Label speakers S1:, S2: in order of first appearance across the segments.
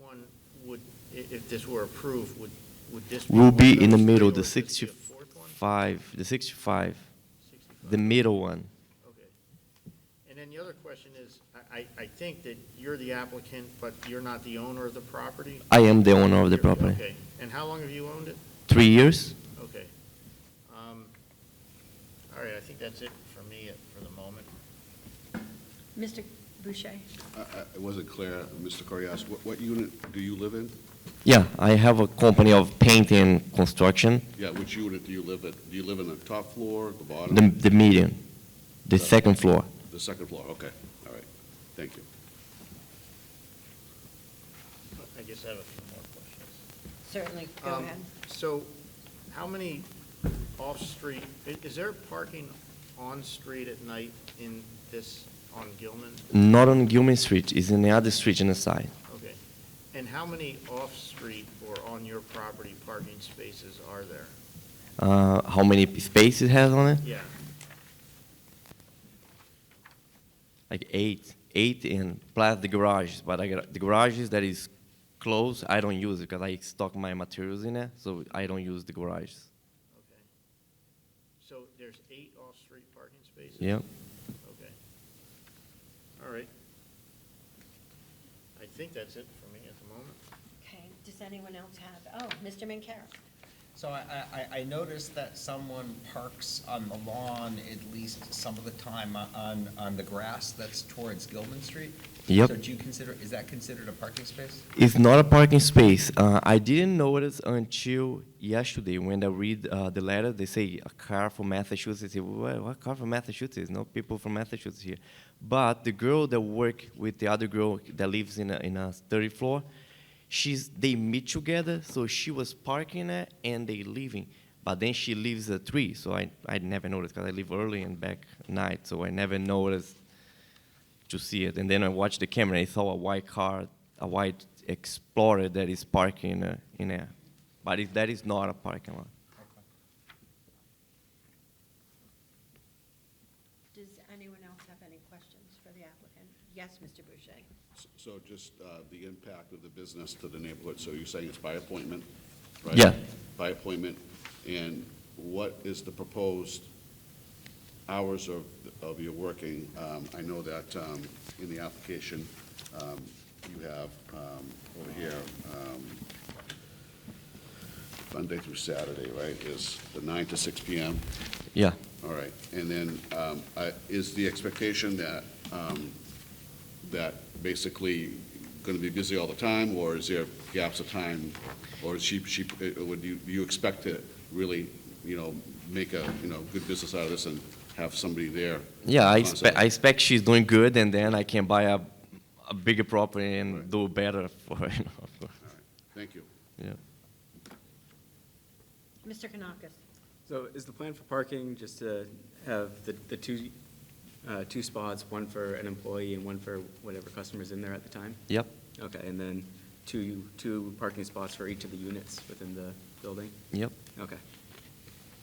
S1: one would, i- if this were approved, would, would this?
S2: will be
S1: one
S2: in the
S1: of those three,
S2: middle, the
S1: or would this be a fourth one?
S2: 65, the 65,
S1: 65.
S2: the middle one.
S1: Okay. And then the other question is, I, I, I think that you're the applicant, but you're not the owner of the property?
S2: I am the owner of the
S1: You're-
S2: property.
S1: Okay, and how long have you owned it?
S2: Three years?
S1: Okay. Um, All right, I think that's it for me uh, for the moment.
S3: Mr. Boucher?
S4: I- I- It wasn't clear, Mr. Corey asked, what, what unit do you live in?
S2: Yeah, I have a company of painting and construction,
S4: Yeah, which unit do you live at? Do you live in the top floor, the bottom?
S2: the, the median, the second floor.
S4: The second floor, okay, all right, thank you.
S1: I just have a few more questions.
S3: Certainly, go
S1: Um,
S3: ahead.
S1: So how many off-street, i- is there parking on-street at night in this, on Gilman?
S2: Not on Gilman Street, it's in the other street on the side.
S1: Okay. And how many off-street or on your property parking spaces are there?
S2: Uh, how many spaces it has on it?
S1: Yeah,
S2: Like eight, eight and plus the garages, but I got, the garages that is closed, I don't use it because I stock my materials in there, so I don't use the garages.
S1: okay. So there's eight off-street parking spaces?
S2: Yeah.
S1: Okay. All right. I think that's it for me at the moment.
S3: Okay, does anyone else have, oh, Mr. Minkara?
S5: So I, I- I, I noticed that someone parks on the lawn at least some of the time on, on the grass that's towards Gilman Street.
S2: Yep.
S5: So do you consider, is that considered a parking space?
S2: It's not a parking space. Uh, I didn't notice until yesterday when I read uh, the letter. They say a car from Massachusetts. I say, What, what car from Massachusetts? No people from Massachusetts here. But the girl that work with the other girl that lives in a, in a third floor, she's they meet together. So she was parking there and they leaving. But then she leaves at three, so I, I never noticed because I leave early and back night, so I never noticed to see it. And then I watched the camera. I saw a white car, a white Explorer that is parking uh, in there. But it, that is not a parking lot.
S3: Does anyone else have any questions for the applicant? Yes, Mr. Boucher?
S4: S- So just uh, the impact of the business to the neighborhood, so you're saying it's by appointment, right?
S2: Yeah.
S4: By appointment, and what is the proposed hours of, of your working? Um, I know that um, in the application, um, you have um, over here, um, Monday through Saturday, right, is the 9 to 6 PM?
S2: Yeah.
S4: All right, and then, um, I- is the expectation that, um, that basically going to be busy all the time, or is there gaps of time? Or is she, she, uh, would you, you expect to really, you know, make a, you know, good business out of this and have somebody there?
S2: Yeah, I,
S4: Awesome.
S2: expect I expect she's doing good, and then I can buy a, a bigger property and
S4: Right.
S2: do better for her. You know, of course.
S4: Thank you.
S2: Yeah.
S3: Mr. Kanakis?
S6: So is the plan for parking just to have the, the two, uh, two spots, one for an employee and one for whatever customer's in there at the time?
S2: Yep.
S6: Okay, and then two, two parking spots for each of the units within the building?
S2: Yep.
S6: Okay.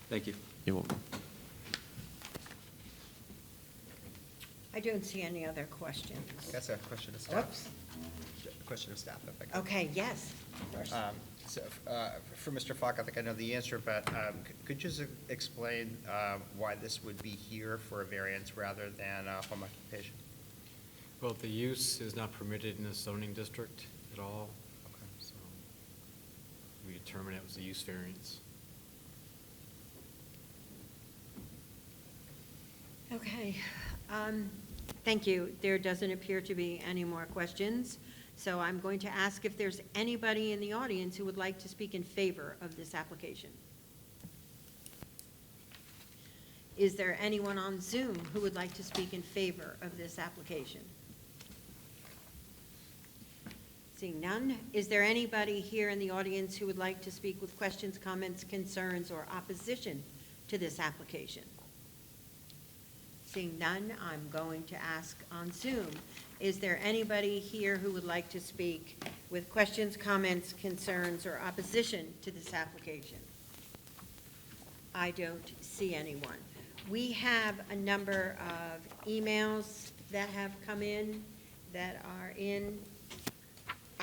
S6: Thank you.
S2: You're welcome.
S3: I don't see any other questions.
S5: That's a question of
S3: Oops. Oh.
S5: staff. Question of staff, if I could.
S3: Okay, yes, of course.
S5: Um, So, uh, for Mr. Falk, I think I know the answer, but um, c- could you just explain uh, why this would be here for a variance rather than a home occupation?
S7: Well, the use is not permitted in the zoning district at all, so we determined it was a use variance.
S3: Okay, um, thank you. There doesn't appear to be any more questions, so I'm going to ask if there's anybody in the audience who would like to speak in favor of this application. Is there anyone on Zoom who would like to speak in favor of this application? Seeing none, is there anybody here in the audience who would like to speak with questions, comments, concerns, or opposition to this application? Seeing none, I'm going to ask on Zoom, is there anybody here who would like to speak with questions, comments, concerns, or opposition to this application? I don't see anyone. We have a number of emails that have come in that are in